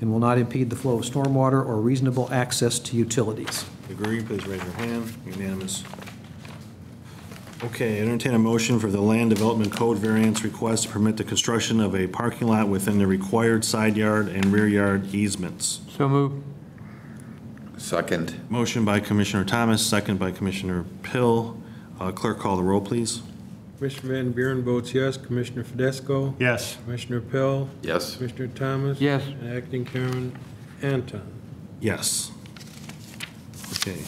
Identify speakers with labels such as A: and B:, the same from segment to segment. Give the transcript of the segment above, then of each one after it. A: and will not impede the flow of stormwater or reasonable access to utilities.
B: Agree, please raise your hand. Unanimous. Okay, entertain a motion for the Land Development Code variance request to permit the construction of a parking lot within the required side yard and rear yard easements.
C: So move.
D: Second.
B: Motion by Commissioner Thomas, second by Commissioner Pill. Uh, Clerk, call the roll, please.
E: Commissioner Van Buren votes yes. Commissioner Fidesco?
F: Yes.
E: Commissioner Pell?
D: Yes.
E: Commissioner Thomas?
C: Yes.
E: And Acting Chairman Anton.
B: Yes. Okay,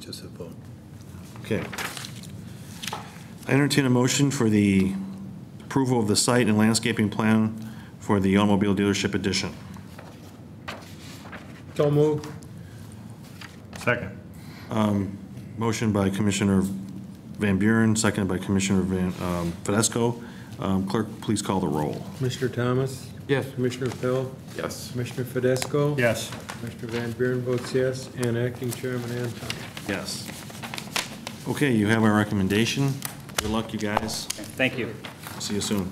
G: Just a vote.
B: okay. I entertain a motion for the approval of the site and landscaping plan for the automobile dealership addition.
E: So moved.
F: Second.
B: Motion by Commissioner Van Buren, seconded by Commissioner Van, um, Fidesco. Um, Clerk, please call the roll.
E: Commissioner Thomas?
C: Yes.
E: Commissioner Pell?
D: Yes.
E: Commissioner Fidesco?
F: Yes.
E: Commissioner Van Buren votes yes. And Acting Chairman Anton.
B: Yes. Okay, you have our recommendation. Good luck, you guys.
H: Thank you.
B: See you soon.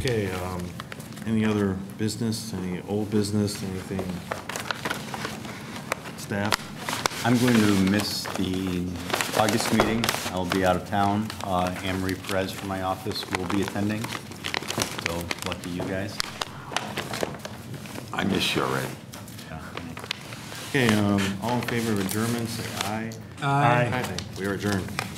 B: Okay, um, any other business, any old business, anything? Staff?
G: I'm going to miss the August meeting. I'll be out of town. Uh, Anne Marie Perez from my office will be attending, so lucky you guys.
D: I miss you already.
B: Okay, um, all in favor of adjournment, say aye.
F: Aye.
B: We are adjourned.